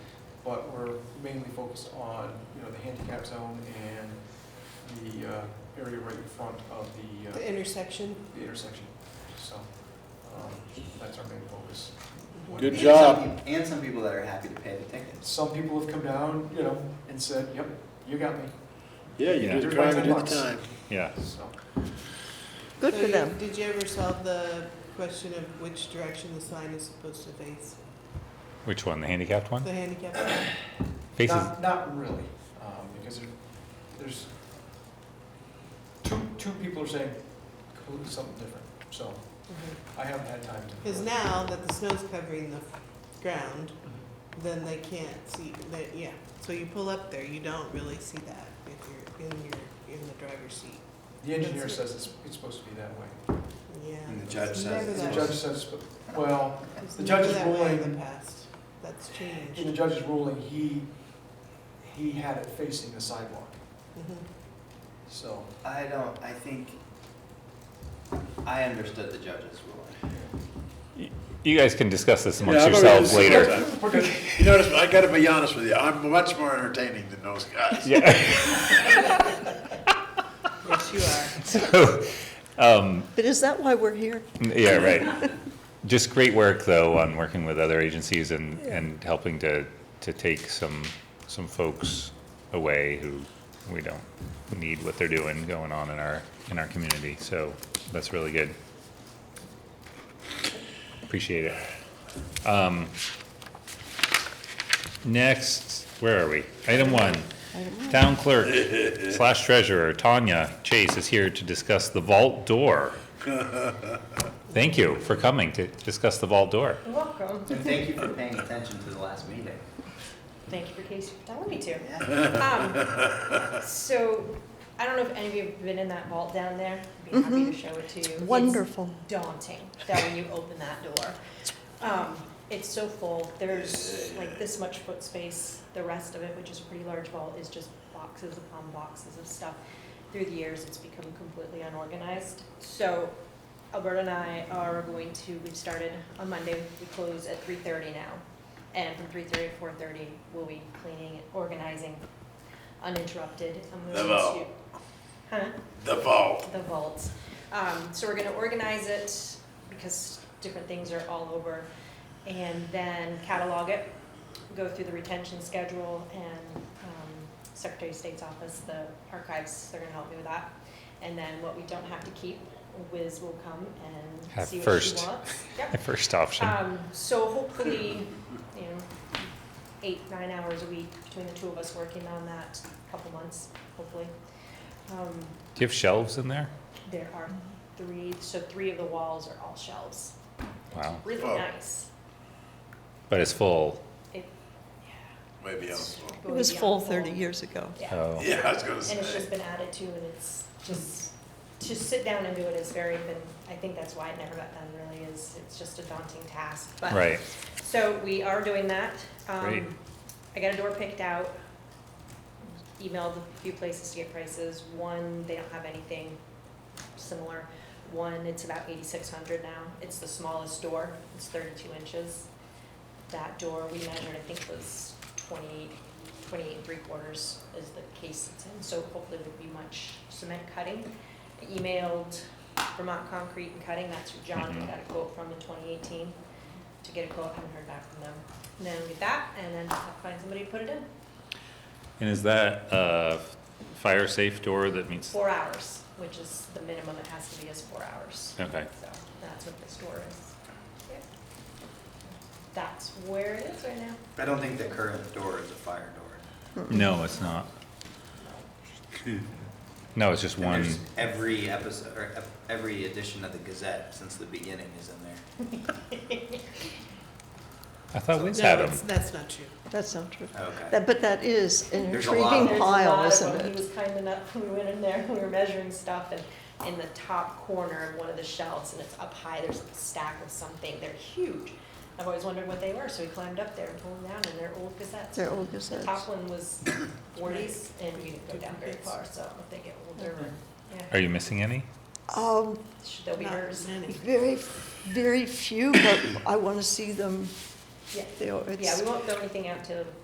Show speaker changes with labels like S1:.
S1: but we're mainly focused on, you know, the handicap zone and the uh, area right in front of the, uh,
S2: The intersection.
S1: the intersection. So, um, that's our main focus.
S3: Good
S4: And some
S3: job.
S4: peop- And some people that are happy to pay the tickets.
S1: Some people have come down, you know, and said, yep, you got me,
S3: Yeah, you did the
S1: Yeah.
S3: crime, you did the
S1: Bucks.
S3: time.
S5: Yeah.
S1: so.
S6: Good
S2: So
S6: for
S2: you-
S6: them.
S2: Did you ever solve the question of which direction the sign is supposed to face?
S5: Which one? The handicapped one?
S2: The handicap sign?
S5: Faces.
S1: Not, not really, um, because there- there's, two, two people are saying completely something different, so I haven't had time to.
S2: Because Mm-hmm. now that the snow's covering the f- ground, then they can't see, that, yeah. So you pull up there, you don't really see that if you're in your, in the driver's seat.
S1: The engineer says it's, it's supposed to be that way.
S2: Yeah.
S4: And the judge
S2: It's
S4: says-
S2: never
S1: The
S2: that-
S1: judge says, well,
S2: it's
S1: the judge
S2: never
S1: is
S2: that way In
S1: ruling-
S2: the past, that's
S1: in the
S2: changed.
S1: judge's ruling, he, he had it facing the sidewalk,
S2: Mhm.
S1: so.
S4: I don't, I think, I understood the judge's ruling.
S5: You guys can discuss this amongst
S3: Yeah, I've already
S5: yourselves
S3: discussed
S5: later.
S3: that.
S1: We're good.
S3: You notice, I gotta be honest with you, I'm much more entertaining than those guys.
S5: Yeah.
S2: Yes, you are.
S5: So, um,
S6: But is that why we're here?
S5: yeah, right. Just great work though on working with other agencies and, and helping to, to take some, some folks away who we don't need what they're doing going on in our, in our community. So that's really good. Appreciate it. Um, next, where are we? Item one. Town clerk slash treasurer Tanya Chase is here to discuss the vault door. Thank you for coming to discuss the vault door.
S7: Welcome.
S4: And thank you for paying attention to the last meeting.
S7: Thank you for case for telling me to.
S4: Yeah.
S7: Um, so I don't know if any of you have been in that vault down there. I'd be happy to show it to you. It's
S6: Wonderful.
S7: daunting that when you open that door. Um, it's so full. There's like this much foot space. The rest of it, which is a pretty large vault, is just boxes upon boxes of stuff. Through the years, it's become completely unorganized. So Alberta and I are going to, we started on Monday, we close at three thirty now. And from three thirty to four thirty, we'll be cleaning, organizing uninterrupted. I'm
S3: The
S7: going
S3: vault.
S7: to- Huh?
S3: The vault.
S7: the vault. Um, so we're gonna organize it because different things are all over. And then catalog it, go through the retention schedule and, um, Secretary of State's office, the archives, they're gonna help me with that. And then what we don't have to keep, Wiz will come and
S5: Have
S7: see what she
S5: first.
S7: wants. Yep.
S5: My first option.
S7: Um, so hopefully, you know, eight, nine hours a week between the two of us working on that, couple months, hopefully. Um,
S5: Do you have shelves in there?
S7: there are three, so three of the walls are all shelves.
S5: Wow.
S7: Really
S3: Wow.
S7: nice.
S5: But it's full.
S3: Maybe I'm
S7: It's
S3: wrong.
S6: It
S7: really
S6: was full
S7: beautiful.
S6: 30 years ago.
S7: Yeah,
S5: Oh.
S3: Yeah, I was gonna
S7: and it's
S3: say.
S7: just been added to, and it's just, to sit down and do it is very, been I think that's why it never got done really is, it's just a daunting task. But
S5: Right.
S7: So we are doing that. Um,
S5: Great.
S7: I got a door picked out, emailed a few places to get prices. One, they don't have anything similar. One, it's about eighty-six hundred now. It's the smallest door. It's thirty-two inches. That door we measured, I think, was 28 28 and three quarters is the case it's in. So hopefully it would be much cement cutting. I Emailed Vermont Concrete and Cutting, that's who John
S5: Mhm.
S7: got a quote from in twenty eighteen to get a quote, haven't heard back from them. And then we get that, and then I'll find somebody to put it in,
S5: And is that a fire safe door that meets?
S7: four hours, which is the minimum it has to be is four hours.
S5: Okay.
S7: So that's what this door is. Yeah. That's where it is right now.
S4: I don't think the current door is a fire door.
S5: No, it's not. No, it's just
S4: And
S5: one.
S4: there's Every episode, or ev- every edition of the Gazette since the beginning is in there.
S5: I thought Wiz
S2: No,
S5: had
S2: it's-
S5: them.
S2: That's not true.
S6: That's not true.
S4: Okay.
S6: That- But that is an
S4: There's a lot of
S6: intriguing
S7: There's a
S6: pile,
S7: lot of
S6: isn't
S7: them. He
S6: it?
S7: was kind enough, we went in there, we were measuring stuff, and in the top corner of one of the shelves, and it's up high, there's a stack of something, they're huge. I've always wondered what they were, so we climbed up there and pulled them down, and they're old cassettes.
S6: They're old
S7: The top
S6: gazettes.
S7: one was forties, and we didn't go down very far, so if they get older, yeah,
S6: Mm-hmm.
S5: Are you missing any?
S6: Um,
S7: they'll be
S2: Not
S7: hers.
S2: many.
S6: very, very few, but I want to see them
S7: Yeah,
S6: They are-
S7: yeah,
S6: it's-
S7: we won't throw anything out till